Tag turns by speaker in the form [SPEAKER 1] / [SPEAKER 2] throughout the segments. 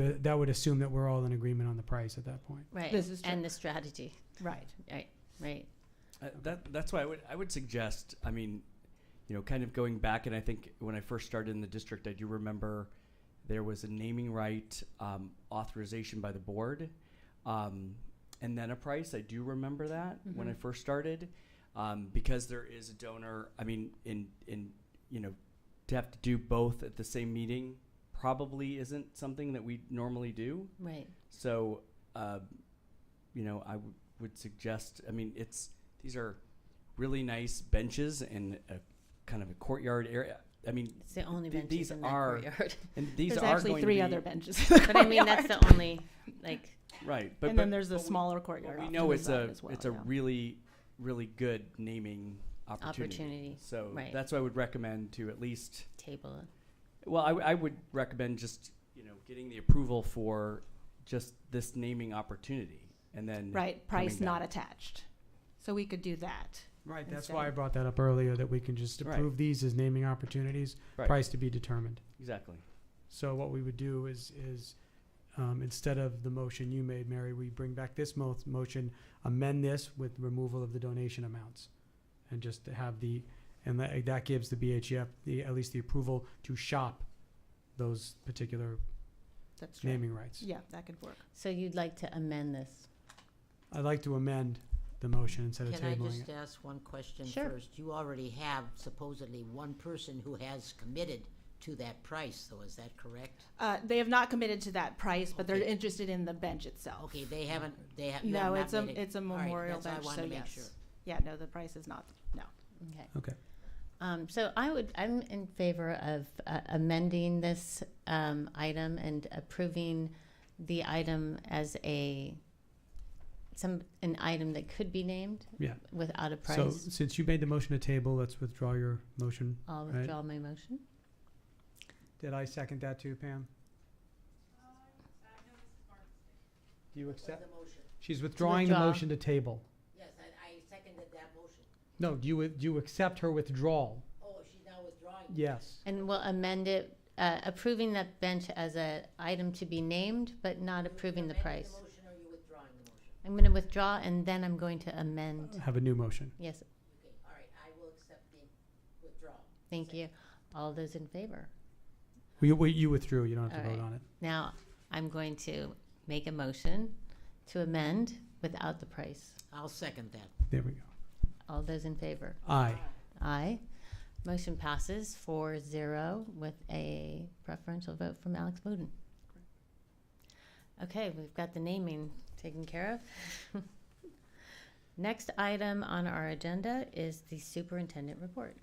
[SPEAKER 1] that would assume that we're all in agreement on the price at that point.
[SPEAKER 2] Right.
[SPEAKER 3] This is true.
[SPEAKER 2] And the strategy,
[SPEAKER 3] Right.
[SPEAKER 2] right?
[SPEAKER 4] Uh, that that's why I would I would suggest. I mean, you know, kind of going back, and I think when I first started in the district, I do remember there was a naming right um, authorization by the board, um, and then a price. I do remember that when I first started, um, because there is a donor. I mean, in in you know, to have to do both at the same meeting probably isn't something that we normally do.
[SPEAKER 2] Right.
[SPEAKER 4] So, uh, you know, I w- would suggest. I mean, it's these are really nice benches and a kind of a courtyard area. I mean,
[SPEAKER 2] It's the only
[SPEAKER 4] Th-
[SPEAKER 2] benches
[SPEAKER 4] these
[SPEAKER 2] in that
[SPEAKER 4] are-
[SPEAKER 2] courtyard.
[SPEAKER 4] and these
[SPEAKER 3] There's
[SPEAKER 4] are
[SPEAKER 3] actually
[SPEAKER 4] going
[SPEAKER 3] three
[SPEAKER 4] to be,
[SPEAKER 3] other benches.
[SPEAKER 2] but I mean, that's the only like
[SPEAKER 4] right. But
[SPEAKER 3] And
[SPEAKER 4] but-
[SPEAKER 3] then there's the
[SPEAKER 4] but we-
[SPEAKER 3] smaller
[SPEAKER 4] but
[SPEAKER 3] courtyard.
[SPEAKER 4] We
[SPEAKER 3] off
[SPEAKER 4] know
[SPEAKER 3] to the
[SPEAKER 4] it's
[SPEAKER 3] side
[SPEAKER 4] a
[SPEAKER 3] as well,
[SPEAKER 4] it's a
[SPEAKER 3] yeah.
[SPEAKER 4] really really good naming opportunity.
[SPEAKER 2] opportunity
[SPEAKER 4] So
[SPEAKER 2] right.
[SPEAKER 4] that's what I would recommend to at least.
[SPEAKER 2] table.
[SPEAKER 4] Well, I, w- I would recommend just you know getting the approval for just this naming opportunity, and then
[SPEAKER 3] Right, price
[SPEAKER 4] coming
[SPEAKER 3] not
[SPEAKER 4] down.
[SPEAKER 3] attached. So we could do that.
[SPEAKER 1] Right,
[SPEAKER 3] that's
[SPEAKER 1] that's
[SPEAKER 3] Instead why I
[SPEAKER 1] why I
[SPEAKER 3] of-
[SPEAKER 1] brought that up earlier, that we can just
[SPEAKER 4] Right.
[SPEAKER 1] approve these as naming opportunities,
[SPEAKER 4] Right.
[SPEAKER 1] price to be determined.
[SPEAKER 4] exactly.
[SPEAKER 1] So what we would do is, is, um, instead of the motion you made, Mary, we bring back this mo- motion, amend this with removal of the donation amounts. And just to have the, and that, that gives the BHF the, at least the approval to shop those particular
[SPEAKER 3] That's true.
[SPEAKER 1] naming rights.
[SPEAKER 3] Yeah, that could work.
[SPEAKER 2] So you'd like to amend this?
[SPEAKER 1] I'd like to amend the motion instead of
[SPEAKER 5] Can I
[SPEAKER 1] tabling
[SPEAKER 5] just uh,
[SPEAKER 1] it.
[SPEAKER 5] ask one question
[SPEAKER 2] Sure.
[SPEAKER 5] first? You already have supposedly one person who has committed to that price, though, is that correct?
[SPEAKER 3] Uh, they have not committed to that price, but they're
[SPEAKER 5] Okay.
[SPEAKER 3] interested in the bench itself.
[SPEAKER 5] Okay, they haven't, they have, you have
[SPEAKER 3] No,
[SPEAKER 5] not
[SPEAKER 3] it's a,
[SPEAKER 5] made it-
[SPEAKER 3] it's a
[SPEAKER 5] all right,
[SPEAKER 3] memorial
[SPEAKER 5] that's all I
[SPEAKER 3] bench,
[SPEAKER 5] wanted
[SPEAKER 3] so
[SPEAKER 5] to make sure.
[SPEAKER 3] yes. Yeah, no, the price is not, no.
[SPEAKER 2] Okay.
[SPEAKER 1] Okay.
[SPEAKER 2] Um, so I would, I'm in favor of uh, amending this um, item and approving the item as a some an item that could be named
[SPEAKER 1] Yeah.
[SPEAKER 2] without a price.
[SPEAKER 1] So since you made the motion to table, let's withdraw your motion.
[SPEAKER 2] I'll
[SPEAKER 1] right.
[SPEAKER 2] withdraw my motion.
[SPEAKER 1] Did I second that too, Pam? Do you accept? She's withdrawing the
[SPEAKER 2] withdraw.
[SPEAKER 1] motion to table.
[SPEAKER 5] Yes, I, seconded that motion.
[SPEAKER 1] No, do you, do you accept her withdrawal?
[SPEAKER 5] Oh, she's now withdrawing.
[SPEAKER 1] Yes.
[SPEAKER 2] And we'll amend it, uh, approving that bench as a item to be named, but not approving the price.
[SPEAKER 5] motion or you withdrawing the motion?
[SPEAKER 2] I'm gonna withdraw and then I'm going to amend.
[SPEAKER 1] Have a new motion.
[SPEAKER 2] Yes,
[SPEAKER 5] Okay, all right, I will accept the withdrawal.
[SPEAKER 2] thank you. All those in favor?
[SPEAKER 1] We, we, you withdrew, you don't have to
[SPEAKER 2] All
[SPEAKER 1] vote
[SPEAKER 2] right.
[SPEAKER 1] on it.
[SPEAKER 2] Now, I'm going to make a motion to amend without the price.
[SPEAKER 5] I'll second that.
[SPEAKER 1] There we go.
[SPEAKER 2] All those in favor?
[SPEAKER 1] Aye.
[SPEAKER 2] Aye. Motion passes four zero with a preferential vote from Alex Bowden. Okay, we've got the naming taken care of. Next item on our agenda is the superintendent report.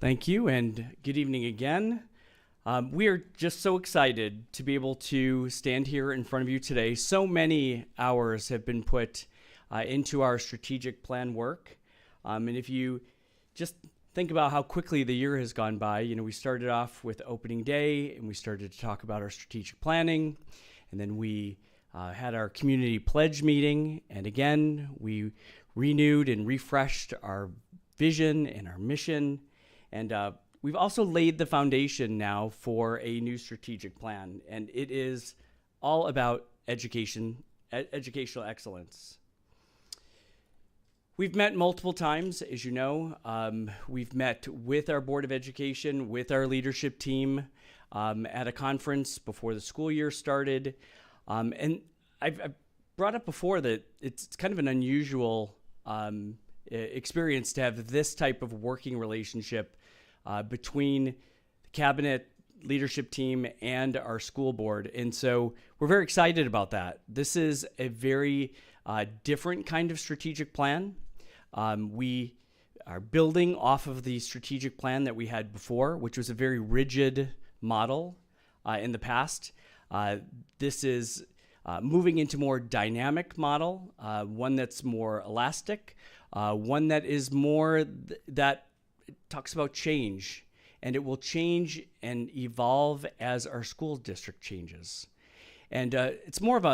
[SPEAKER 4] Thank you, and good evening again. Um, we are just so excited to be able to stand here in front of you today. So many hours have been put uh, into our strategic plan work. Um, and if you just think about how quickly the year has gone by, you know, we started off with opening day and we started to talk about our strategic planning. And then we uh, had our community pledge meeting. And again, we renewed and refreshed our vision and our mission. And uh, we've also laid the foundation now for a new strategic plan, and it is all about education, e- educational excellence. We've met multiple times, as you know. Um, we've met with our Board of Education, with our leadership team um, at a conference before the school year started. Um, and I've, I've brought up before that it's it's kind of an unusual um, e- experience to have this type of working relationship uh, between the cabinet leadership team and our school board. And so we're very excited about that. This is a very uh, different kind of strategic plan. Um, we are building off of the strategic plan that we had before, which was a very rigid model uh, in the past. Uh, this is uh, moving into more dynamic model, uh, one that's more elastic, uh, one that is more th- that talks about change, and it will change and evolve as our school district changes, and uh, it's more of a